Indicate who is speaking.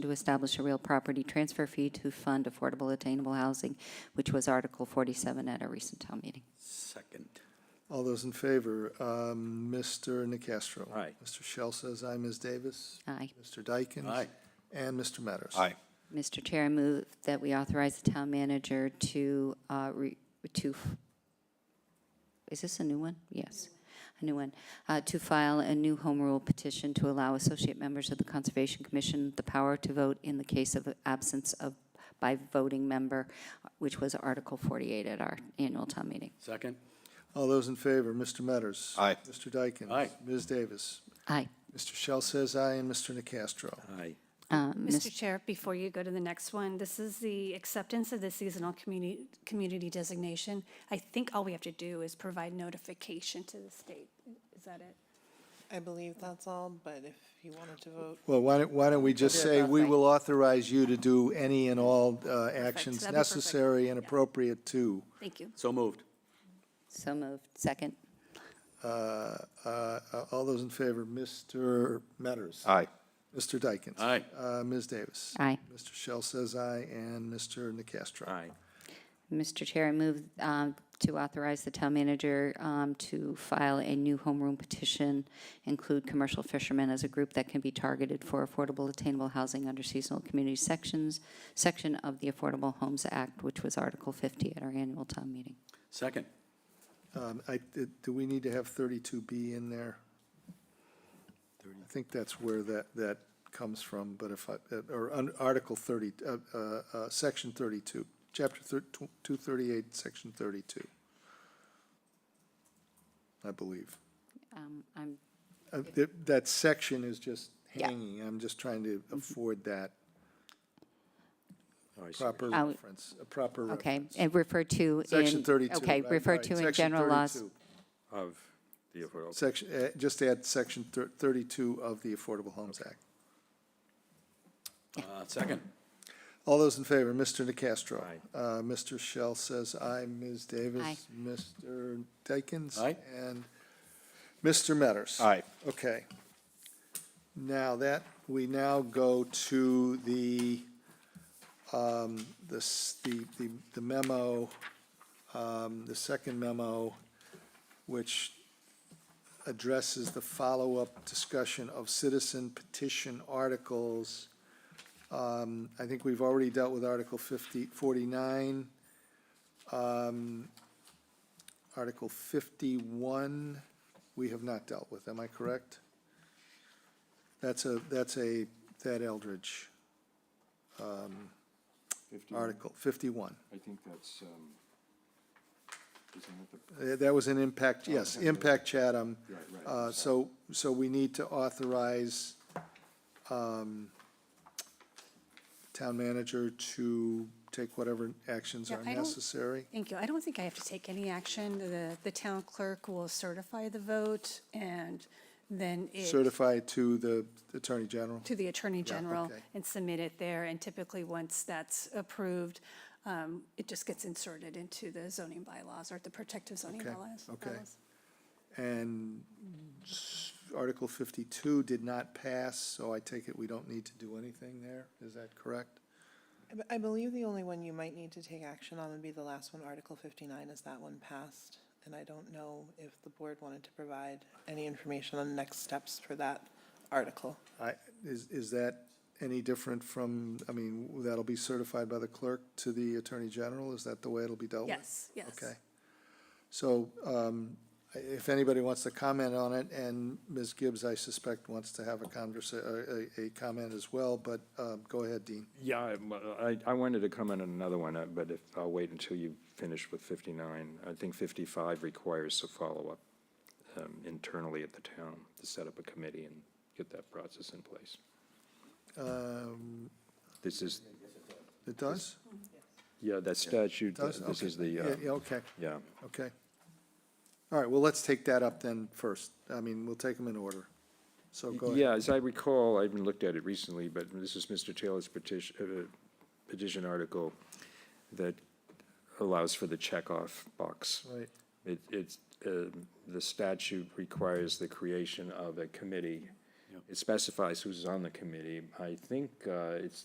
Speaker 1: to establish a real property transfer fee to fund affordable attainable housing, which was Article 47 at our recent town meeting.
Speaker 2: Second.
Speaker 3: All those in favor, um, Mr. Nacastro.
Speaker 2: Aye.
Speaker 3: Mr. Shell says aye, Ms. Davis.
Speaker 1: Aye.
Speaker 3: Mr. Dykens.
Speaker 2: Aye.
Speaker 3: And Mr. Metters.
Speaker 1: Mr. Chair, I move that we authorize the town manager to, uh, re- to, is this a new one? Yes, a new one. Uh, To file a new home rule petition to allow associate members of the Conservation Commission the power to vote in the case of absence of, by voting member, which was Article 48 at our annual town meeting.
Speaker 2: Second.
Speaker 3: All those in favor, Mr. Metters.
Speaker 4: Aye.
Speaker 3: Mr. Dykens.
Speaker 2: Aye.
Speaker 3: Ms. Davis.
Speaker 1: Aye.
Speaker 3: Mr. Shell says aye, and Mr. Nacastro.
Speaker 2: Aye.
Speaker 1: Uh,
Speaker 5: Mr. Chair, before you go to the next one, this is the acceptance of the seasonal community, community designation. I think all we have to do is provide notification to the state. Is that it?
Speaker 6: I believe that's all, but if you wanted to vote,
Speaker 3: Well, why don't, why don't we just
Speaker 1: do it
Speaker 3: say,
Speaker 1: both
Speaker 3: we
Speaker 1: ways.
Speaker 3: will authorize you to do any and all uh, actions
Speaker 5: That'd be perfect.
Speaker 3: necessary and
Speaker 5: Yeah.
Speaker 3: appropriate to.
Speaker 5: Thank you.
Speaker 2: So moved.
Speaker 1: So moved. Second.
Speaker 3: Uh, uh, All those in favor, Mr. Metters.
Speaker 4: Aye.
Speaker 3: Mr. Dykens.
Speaker 2: Aye.
Speaker 3: Uh, Ms. Davis.
Speaker 1: Aye.
Speaker 3: Mr. Shell says aye, and Mr. Nacastro.
Speaker 2: Aye.
Speaker 1: Mr. Chair, I move um, to authorize the town manager um, to file a new homeroom petition, include commercial fishermen as a group that can be targeted for affordable attainable housing under seasonal community sections, section of the Affordable Homes Act, which was Article 50 at our annual town meeting.
Speaker 2: Second.
Speaker 3: Um, I, did- do we need to have thirty-two B in there? I think that's where that, that comes from, but if I, uh, or un- Article thirty, uh, uh, uh, Section thirty-two, Chapter thir- two thirty-eight, Section thirty-two. I believe.
Speaker 1: Um, I'm-
Speaker 3: Uh, That, that section is just
Speaker 1: Yeah. Mm-hmm.
Speaker 3: hanging, I'm just trying to afford that
Speaker 2: Oh, I see what
Speaker 3: proper
Speaker 1: Out.
Speaker 3: reference, a proper
Speaker 1: Okay,
Speaker 3: reference.
Speaker 1: and refer to in...
Speaker 3: Section thirty-two.
Speaker 1: Okay,
Speaker 3: right,
Speaker 1: refer
Speaker 3: right,
Speaker 1: to in
Speaker 3: Section
Speaker 1: general laws.
Speaker 3: 32.
Speaker 2: Of the affordable.
Speaker 3: Section, uh, just add section thir- thirty-two of the Affordable Homes Act.
Speaker 2: Uh, Second.
Speaker 3: All those in favor, Mr. Nacastro.
Speaker 2: Aye.
Speaker 3: Uh, Mr. Shell says aye, Ms. Davis.
Speaker 1: Aye.
Speaker 3: Mr. Dykens.
Speaker 2: Aye.
Speaker 3: And Mr. Metters.
Speaker 4: Aye.
Speaker 3: Okay. Now that, we now go to the, um, this, the, the the memo, um, the second memo, which addresses the follow-up discussion of citizen petition articles. Um, I think we've already dealt with Article 50, 49. Um, Article 51, we have not dealt with, am I correct? That's a, that's a, that Eldridge um, article, 51.
Speaker 7: I think that's, um, isn't it the,
Speaker 3: Uh, That was an impact, yes, impact Chatham.
Speaker 7: Oh, Right, right,
Speaker 3: Uh, So, so we need to authorize um, town manager to take whatever actions
Speaker 5: Yeah,
Speaker 3: are
Speaker 5: I don't-
Speaker 3: necessary.
Speaker 5: Thank you. I don't think I have to take any action. The, the town clerk will certify the vote and then it,
Speaker 3: Certify to the Attorney General.
Speaker 5: to the Attorney General
Speaker 3: okay.
Speaker 5: and submit it there. And typically, once that's approved, um, it just gets inserted into the zoning bylaws or the protective zoning
Speaker 3: Okay,
Speaker 5: bylaws.
Speaker 3: okay.
Speaker 5: bylaws.
Speaker 3: And s- Article 52 did not pass, so I take it we don't need to do anything there. Is that correct?
Speaker 6: I b- I believe the only one you might need to take action on would be the last one, Article 59, is that one passed? And I don't know if the board wanted to provide any information on next steps for that article.
Speaker 3: I, is, is that any different from, I mean, that'll be certified by the clerk to the Attorney General? Is that the way it'll be dealt with?
Speaker 5: Yes, yes.
Speaker 3: Okay. So um, i- if anybody wants to comment on it, and Ms. Gibbs, I suspect, wants to have a conversa, a- a, a comment as well, but uh, go ahead, Dean.
Speaker 7: yeah, I'm, uh, I, I wanted to comment on another one, uh, but if, I'll wait until you finish with 59. I think 55 requires a follow-up um, internally at the town to set up a committee and get that process in place.
Speaker 3: Um,
Speaker 7: This is,
Speaker 3: It does?
Speaker 7: yeah, that statute, uh,
Speaker 3: Does?
Speaker 7: this
Speaker 3: Okay.
Speaker 7: is the,
Speaker 3: Yeah,
Speaker 7: uh,
Speaker 3: yeah, okay,
Speaker 7: yeah.
Speaker 3: okay. All right, well, let's take that up then first. I mean, we'll take them in order. So Oh, go ahead.
Speaker 7: Yeah, as I recall, I haven't looked at it recently, but this is Mr. Taylor's petition, uh, petition article that allows for the checkoff box.
Speaker 3: Right,
Speaker 7: It, it's, um, the statute requires the creation of a committee It specifies who's on the committee. I think uh, it's